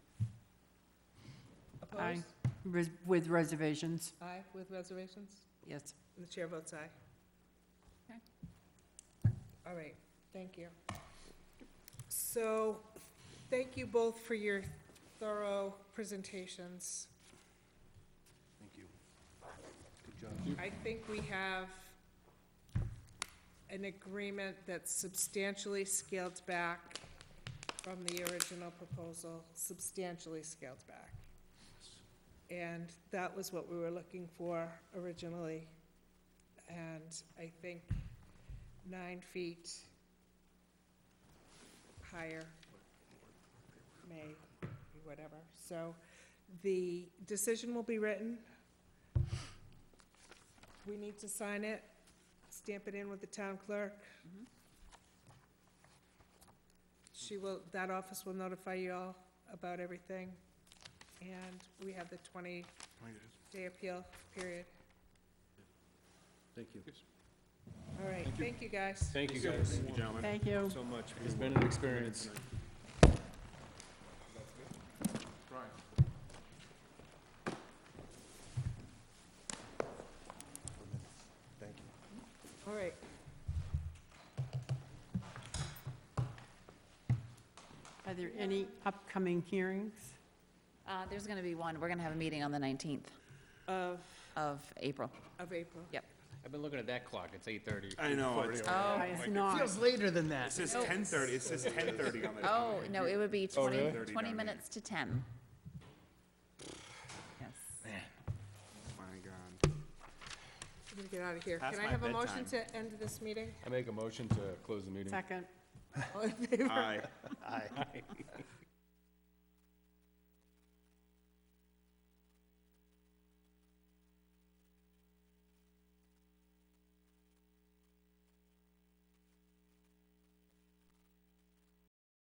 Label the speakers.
Speaker 1: Aye.
Speaker 2: Opposed?
Speaker 1: Res- With reservations,
Speaker 2: Aye, with reservations?
Speaker 1: yes.
Speaker 2: And the chair votes aye. All right, thank you. So, thank you both for your thorough presentations.
Speaker 3: Thank you. Good job.
Speaker 2: I think we have an agreement that's substantially scaled back from the original proposal, substantially scaled back. And that was what we were looking for originally. And I think nine feet higher may be whatever. So the decision will be written. We need to sign it, stamp it in with the town clerk.
Speaker 1: Mhm.
Speaker 2: She will, that office will notify you all about everything. And we have the twenty-day appeal period.
Speaker 3: Thank you.
Speaker 2: All right, thank you guys.
Speaker 4: Thank you, guys. Thank you, gentlemen,
Speaker 1: Thank you.
Speaker 4: so much. It's been an experience.
Speaker 3: Thank you.
Speaker 2: All right.
Speaker 1: Are there any upcoming hearings?
Speaker 5: Uh, There's going to be one, we're going to have a meeting on the 19th
Speaker 2: Of,
Speaker 5: of April.
Speaker 2: of April.
Speaker 6: I've been looking at that clock, it's eight thirty.
Speaker 4: I know.
Speaker 5: Oh,
Speaker 1: It's not,
Speaker 4: Feels later than that.
Speaker 7: uh, It says ten thirty, it says ten thirty on the.
Speaker 5: oh, no, it would be 20,
Speaker 7: really?
Speaker 5: 20 minutes to 10. Yes.
Speaker 7: My
Speaker 2: I'm
Speaker 7: God.
Speaker 2: gonna get out of here.
Speaker 7: Past
Speaker 2: Can I
Speaker 7: my
Speaker 2: have a motion
Speaker 7: bedtime.
Speaker 2: to end this meeting?
Speaker 4: I make a motion to close the meeting.
Speaker 1: second.
Speaker 2: All in favor?
Speaker 7: Aye.